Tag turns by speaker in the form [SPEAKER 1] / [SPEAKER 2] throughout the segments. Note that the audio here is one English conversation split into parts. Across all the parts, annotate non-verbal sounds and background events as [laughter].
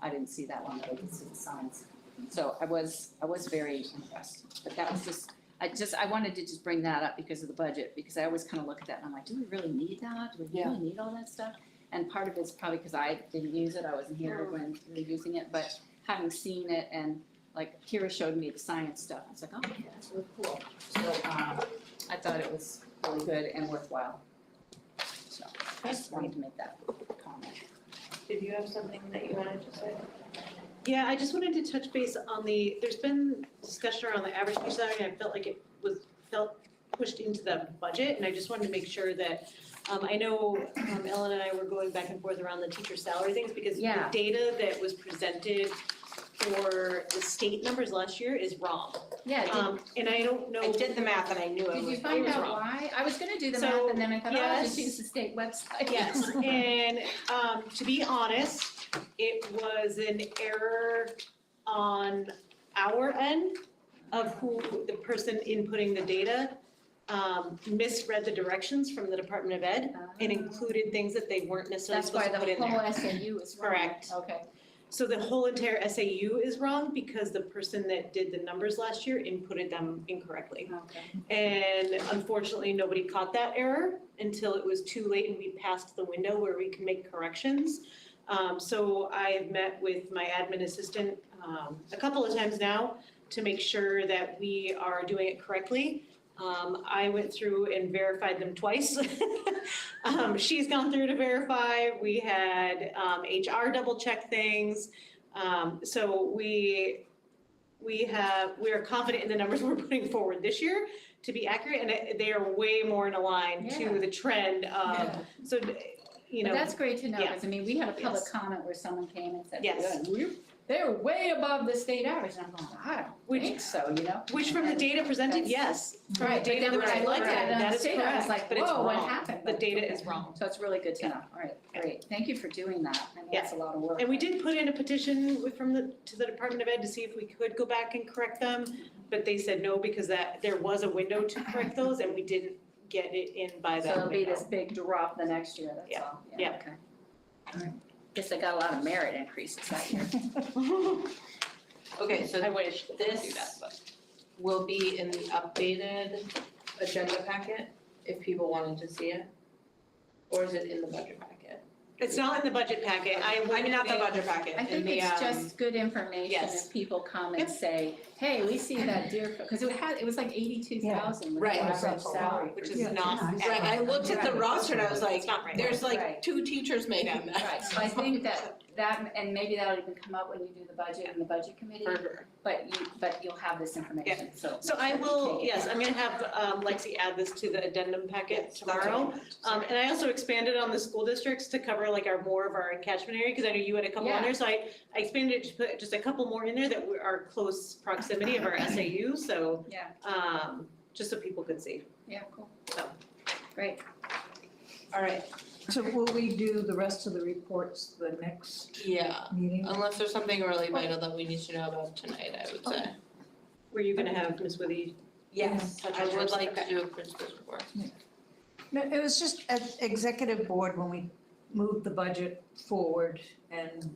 [SPEAKER 1] I didn't see that one, though, I did see the signs. So I was, I was very impressed, but that was just, I just, I wanted to just bring that up because of the budget, because I always kind of look at that and I'm like, do we really need that? Do we
[SPEAKER 2] Yeah.
[SPEAKER 1] really need all that stuff? And part of it's probably because I didn't use it, I wasn't here when they were using it, but having seen it and like Kira showed me the science stuff, I was like, oh, yeah, that's really cool. So, um, I thought it was really good and worthwhile. So, I just wanted to make that comment.
[SPEAKER 2] Did you have something that you wanted to say?
[SPEAKER 3] Yeah, I just wanted to touch base on the, there's been discussion around the average teacher salary, and I felt like it was, felt pushed into the budget, and I just wanted to make sure that, um, I know, um, Ellen and I were going back and forth around the teacher salary things, because the
[SPEAKER 1] Yeah.
[SPEAKER 3] data that was presented for the state numbers last year is wrong.
[SPEAKER 1] Yeah, did,
[SPEAKER 3] Um, and I don't know.
[SPEAKER 2] I did the math and I knew it
[SPEAKER 1] Did
[SPEAKER 2] was,
[SPEAKER 1] you
[SPEAKER 2] it
[SPEAKER 1] find
[SPEAKER 2] was
[SPEAKER 1] out
[SPEAKER 2] wrong.
[SPEAKER 1] why? I was gonna do the
[SPEAKER 3] So,
[SPEAKER 1] math and then I thought, oh, I'll just
[SPEAKER 3] yes.
[SPEAKER 1] use the state website.
[SPEAKER 3] Yes,
[SPEAKER 1] [laughs]
[SPEAKER 3] and um to be honest, it was an error on our end of who the person inputting the data um misread the directions from the Department of Ed and included things that they weren't necessarily
[SPEAKER 1] Um, That's why
[SPEAKER 3] supposed to
[SPEAKER 1] the
[SPEAKER 3] put in there.
[SPEAKER 1] whole SAU is wrong.
[SPEAKER 3] Correct.
[SPEAKER 1] Okay,
[SPEAKER 3] So the whole entire SAU is wrong because the person that did the numbers last year inputted them incorrectly.
[SPEAKER 1] okay.
[SPEAKER 3] And unfortunately, nobody caught that error until it was too late and we passed the window where we can make corrections. Um, so I have met with my admin assistant, um, a couple of times now to make sure that we are doing it correctly. Um, I went through and verified them twice. [laughs] Um, she's gone through to verify, we had, um, HR double check things. Um, so we, we have, we are confident in the numbers [laughs] we're putting forward this year to be accurate, and it- they are way more in line
[SPEAKER 1] Yeah.
[SPEAKER 3] to the trend of,
[SPEAKER 1] Yeah.
[SPEAKER 3] so, Um, you
[SPEAKER 1] But
[SPEAKER 3] know,
[SPEAKER 1] that's great to know, because I mean, we had a public
[SPEAKER 3] Yes.
[SPEAKER 1] comment where someone came and said,
[SPEAKER 3] Yes.
[SPEAKER 1] "Yeah, we're, they're way above the state average, and I'm going, I don't
[SPEAKER 3] Which-
[SPEAKER 1] think so, you know?
[SPEAKER 3] which from the data presented, yes, from the
[SPEAKER 1] Right, but
[SPEAKER 3] data
[SPEAKER 1] then
[SPEAKER 3] that
[SPEAKER 1] when I
[SPEAKER 3] was
[SPEAKER 1] looked
[SPEAKER 3] provided,
[SPEAKER 1] at it on
[SPEAKER 3] that
[SPEAKER 1] the
[SPEAKER 3] is
[SPEAKER 1] state, I was
[SPEAKER 3] correct,
[SPEAKER 1] like,
[SPEAKER 3] but it's
[SPEAKER 1] whoa, what
[SPEAKER 3] wrong.
[SPEAKER 1] happened?
[SPEAKER 3] The
[SPEAKER 1] But-
[SPEAKER 3] data is
[SPEAKER 1] okay.
[SPEAKER 3] wrong.
[SPEAKER 1] So it's really good to
[SPEAKER 3] Yeah.
[SPEAKER 1] know, all right, great, thank you for doing that, I know that's a lot of work.
[SPEAKER 3] And we did put in a petition with- from the, to the Department of Ed to see if we could go back and correct them, but they said no, because that, there was a window to correct those, and we didn't get it in by
[SPEAKER 1] So
[SPEAKER 3] that
[SPEAKER 1] it'll be
[SPEAKER 3] window.
[SPEAKER 1] this big drop the next year, that's
[SPEAKER 3] Yeah,
[SPEAKER 1] all, yeah,
[SPEAKER 3] yeah.
[SPEAKER 1] okay. All right. Guess they got a lot of merit increases that
[SPEAKER 3] [laughs]
[SPEAKER 1] year.
[SPEAKER 2] Okay, so
[SPEAKER 3] I wish they could do that,
[SPEAKER 2] this
[SPEAKER 3] but.
[SPEAKER 2] will be in the updated agenda packet if people wanted to see it. Or is it in the budget packet?
[SPEAKER 3] It's not in the budget packet, I would.
[SPEAKER 2] I mean, not the budget packet,
[SPEAKER 1] I
[SPEAKER 2] in
[SPEAKER 1] think
[SPEAKER 2] the,
[SPEAKER 1] it's
[SPEAKER 2] um,
[SPEAKER 1] just good information
[SPEAKER 2] yes.
[SPEAKER 1] if people come and
[SPEAKER 3] Yep.
[SPEAKER 1] say, hey, we see that deer, because it had, it was like eighty-two thousand was the
[SPEAKER 2] Right.
[SPEAKER 1] average
[SPEAKER 4] That's a lot,
[SPEAKER 1] salary.
[SPEAKER 3] which
[SPEAKER 1] for
[SPEAKER 3] is
[SPEAKER 1] teachers.
[SPEAKER 3] not
[SPEAKER 1] Right.
[SPEAKER 2] right, I looked at the roster and I was like,
[SPEAKER 3] It's not right.
[SPEAKER 2] there's
[SPEAKER 1] Right.
[SPEAKER 2] like two teachers made on that.
[SPEAKER 1] Right, so I think that, that, and maybe that'll even come up when you do the budget and the budget committee,
[SPEAKER 2] For sure.
[SPEAKER 1] but you, but you'll have this information, so.
[SPEAKER 3] So
[SPEAKER 1] make
[SPEAKER 3] I
[SPEAKER 1] sure you
[SPEAKER 3] will,
[SPEAKER 1] take it.
[SPEAKER 3] yes, I'm gonna have um, Lexi add this to the addendum packet
[SPEAKER 2] Yes, that's what I
[SPEAKER 3] tomorrow.
[SPEAKER 2] meant.
[SPEAKER 3] Um, and I also expanded on the school districts to cover like our, more of our catchment area, because I know you had a couple
[SPEAKER 1] Yeah.
[SPEAKER 3] on there, so I, I expanded it to put just a couple more in there that were our close proximity [coughs] of our SAU, so,
[SPEAKER 1] Yeah,
[SPEAKER 3] um, just so people could see.
[SPEAKER 1] yeah, cool.
[SPEAKER 3] So.
[SPEAKER 1] Great,
[SPEAKER 2] All right,
[SPEAKER 4] So will we do the rest of the reports the next
[SPEAKER 2] yeah,
[SPEAKER 4] meeting?
[SPEAKER 2] unless there's something really vital that we need to know about tonight, I would say.
[SPEAKER 3] Were you gonna have Ms. Withy?
[SPEAKER 2] Yes,
[SPEAKER 3] Touch
[SPEAKER 2] I
[SPEAKER 3] on
[SPEAKER 2] would
[SPEAKER 3] yours.
[SPEAKER 2] like to do a principal's report.
[SPEAKER 4] No, it was just at executive board when we moved the budget forward and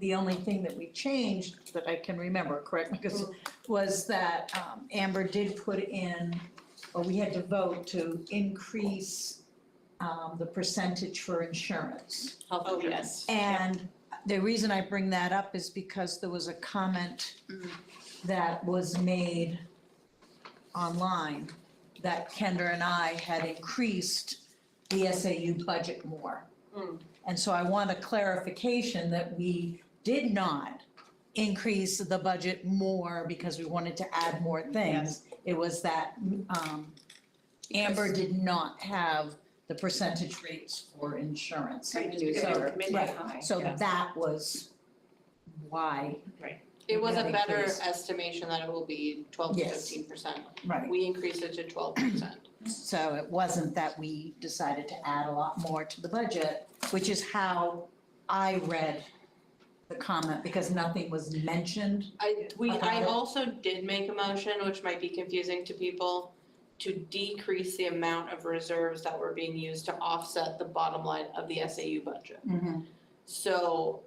[SPEAKER 4] the only thing that we changed that I can remember, correct, because was that um, Amber did put in, or we had to vote to increase um, the percentage for insurance.
[SPEAKER 2] Health
[SPEAKER 3] Oh,
[SPEAKER 2] insurance.
[SPEAKER 3] yes.
[SPEAKER 4] And the reason I bring that up is because there was a comment
[SPEAKER 1] Mm.
[SPEAKER 4] that was made online that Kendra and I had increased the SAU budget more.
[SPEAKER 3] Mm.
[SPEAKER 4] And so I want a clarification that we did not increase the budget more because we wanted to add more things. It was that um, Amber did not have the percentage rates for insurance.
[SPEAKER 3] Right, just
[SPEAKER 1] Revenues
[SPEAKER 3] because
[SPEAKER 1] are
[SPEAKER 3] our committee-
[SPEAKER 4] right.
[SPEAKER 1] high.
[SPEAKER 4] So
[SPEAKER 3] Yeah.
[SPEAKER 4] that was why,
[SPEAKER 2] It was a
[SPEAKER 4] Yeah,
[SPEAKER 2] better
[SPEAKER 4] increase.
[SPEAKER 2] estimation that it will be twelve to
[SPEAKER 4] Yes.
[SPEAKER 2] fifteen percent.
[SPEAKER 4] right,
[SPEAKER 2] We increased it to twelve percent.
[SPEAKER 4] so it wasn't that we decided to add a lot more to the budget, which is how I read the comment, because nothing was mentioned.
[SPEAKER 2] [clears throat] I, we,
[SPEAKER 4] About
[SPEAKER 2] I
[SPEAKER 4] it.
[SPEAKER 2] also did make a motion, which might be confusing to people, to decrease the amount of reserves
[SPEAKER 4] Mm-hmm.
[SPEAKER 2] that were being used to offset the bottom line of the SAU budget. So